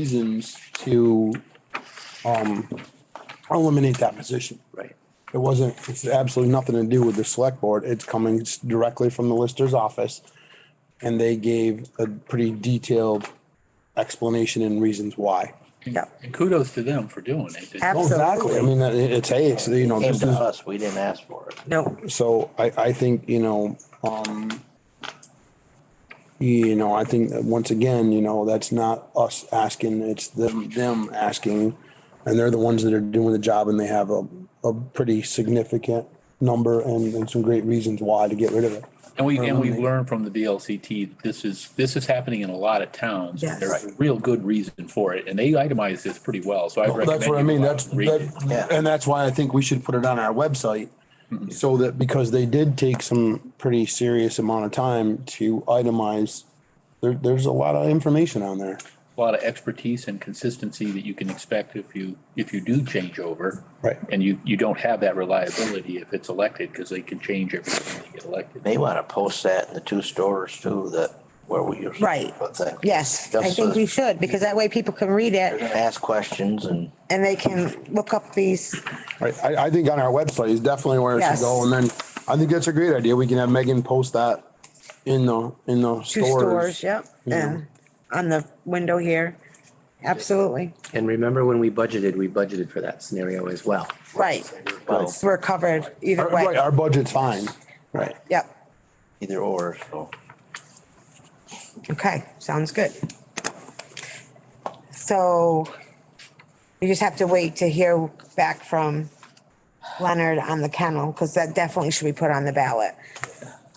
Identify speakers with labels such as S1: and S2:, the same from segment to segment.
S1: reasons to um, eliminate that position.
S2: Right.
S1: It wasn't, it's absolutely nothing to do with the select board. It's coming s- directly from the lister's office. And they gave a pretty detailed explanation and reasons why.
S2: Yeah.
S3: And kudos to them for doing it.
S1: Oh, Exactly. I mean, that- it- it's, hey, it's, you know,
S2: Came
S1: this
S2: to
S1: is,
S2: us, we didn't ask for it.
S4: No,
S1: so I, I think, you know, um, you know, I think that once again, you know, that's not us asking, it's them, them asking. And they're the ones that are doing the job and they have a, a pretty significant number and, and some great reasons why to get rid of it.
S3: And we, and we've learned from the VLCT, this is, this is happening in a lot of towns.
S4: Yes.
S3: There's a real good reason for it, and they itemize this pretty well, so I
S1: Well,
S3: recommend.
S1: That's what I
S3: you
S1: mean,
S3: go out
S1: that's,
S3: and read it.
S1: that,
S2: Yeah.
S1: and that's why I think we should put it on our website.
S3: Mm-hmm.
S1: So that, because they did take some pretty serious amount of time to itemize, there, there's a lot of information on there.
S3: A lot of expertise and consistency that you can expect if you, if you do change over.
S1: Right.
S3: And you, you don't have that reliability if it's elected, because they can change every time they get elected.
S2: They want to post that in the two stores too, that where we usually.
S4: Right.
S2: put things.
S4: yes, I
S2: Just
S4: think
S2: so
S4: we should, because that way people can read
S2: they're
S4: it
S2: gonna Ask questions and
S4: and they can look up these,
S1: Right, I, I think on our website is definitely where it should
S4: Yes.
S1: go, and then I think that's a great idea, we can have Megan post that in the, in the
S4: two stores,
S1: stores.
S4: yep, and on the window here. Absolutely,
S5: And remember when we budgeted, we budgeted for that scenario as well.
S4: right.
S2: Well-
S4: We're covered either
S1: Our- Right,
S4: way.
S1: our budget's fine, right,
S4: Yep.
S2: either or, so.
S4: Okay, sounds good. So you just have to wait to hear back from Leonard on the kennel, because that definitely should be put on the ballot.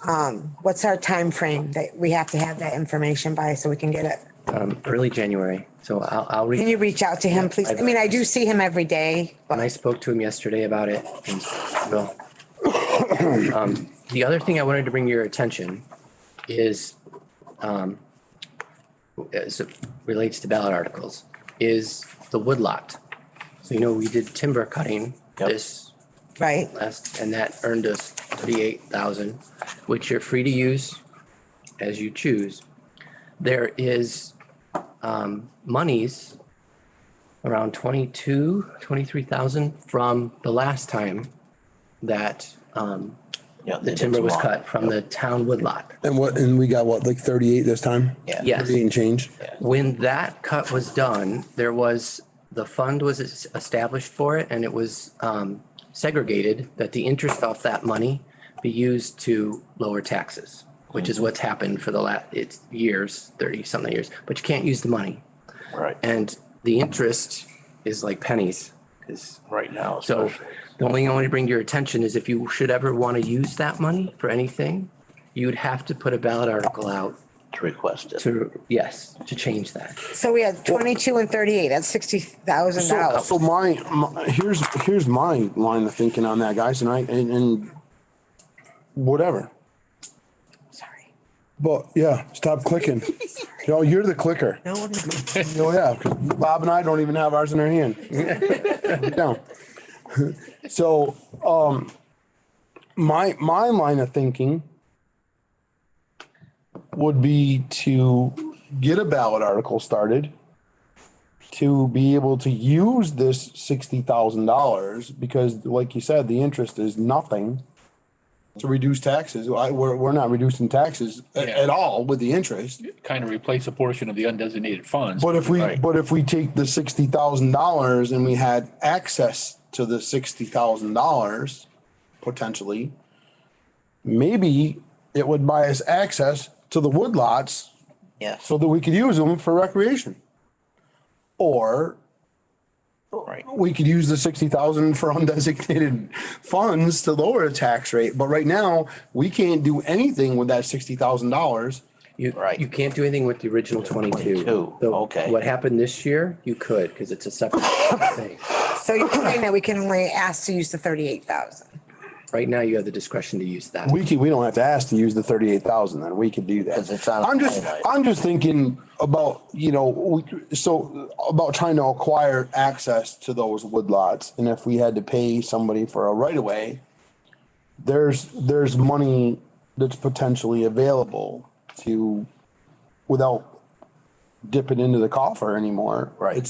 S4: Um, what's our time frame that we have to have that information by so we can get it?
S5: Um, early January, so I'll, I'll
S4: Can
S5: read.
S4: you reach out to him, please? I mean, I do see him every day,
S5: And I
S4: but
S5: spoke to him yesterday about it. and Well, um, the other thing I wanted to bring to your attention is, um, as it relates to ballot articles, is the woodlot. So you know, we did timber cutting
S2: Yep.
S5: this
S4: right?
S5: last, and that earned us thirty-eight thousand, which you're free to use as you choose. There is um monies around twenty-two, twenty-three thousand from the last time that um
S2: yeah,
S5: the
S2: they did
S5: timber
S2: some
S5: was
S2: lawn.
S5: cut from the town woodlot.
S1: and what, and we got what, like thirty-eight this time?
S2: Yeah.
S5: Yes.
S1: Thirty and change,
S5: When that cut was done, there was, the fund was es- established for it and it was um, segregated that the interest off that money be used to lower taxes, which is what's happened for the last, it's years, thirty something years, but you can't use the money.
S2: Right.
S5: And the interest is like pennies. 'cause-
S2: Right now.
S5: So
S2: especially.
S5: the only thing I want to bring to your attention is if you should ever want to use that money for anything, you would have to put a ballot article out
S2: To request it.
S5: to, yes, to change that.
S4: So we had twenty-two and thirty-eight, that's sixty thousand
S1: So,
S4: dollars.
S1: so my, my, here's, here's my line of thinking on that, guys, and I, and, and whatever,
S4: Sorry.
S1: but, yeah, stop clicking. No, you're the clicker.
S4: No, I'm not.
S1: Oh, yeah, 'cause Bob and I don't even have ours in our hand. No. So, um, my, my line of thinking would be to get a ballot article started to be able to use this sixty thousand dollars, because like you said, the interest is nothing to reduce taxes. I, we're, we're not reducing taxes a-
S3: Yeah.
S1: at all with the interest.
S3: Kind of replace a portion of the undesignated funds.
S1: But if we,
S2: Right.
S1: but if we take the sixty thousand dollars and we had access to the sixty thousand dollars potentially, maybe it would buy us access to the woodlots
S2: Yes,
S1: so that we could use them for recreation. Or
S2: right.
S1: we could use the sixty thousand for undesignated funds to lower the tax rate. But right now, we can't do anything with that sixty thousand dollars.
S5: You,
S2: Right.
S5: you can't do anything with the original twenty-two.
S2: 22,
S5: So
S2: okay.
S5: What happened this year, you could, because it's a separate thing.
S4: So you're saying that we can only ask to use the thirty-eight thousand?
S5: Right now, you have the discretion to use that.
S1: We can, we don't have to ask to use the thirty-eight thousand, then we could do that.
S2: 'Cause it's on a
S1: I'm just,
S2: highlight.
S1: I'm just thinking about, you know, we, so about trying to acquire access to those woodlots. And if we had to pay somebody for a right of way, there's, there's money that's potentially available to, without
S2: dip it into the coffer anymore.
S1: Right.
S2: It's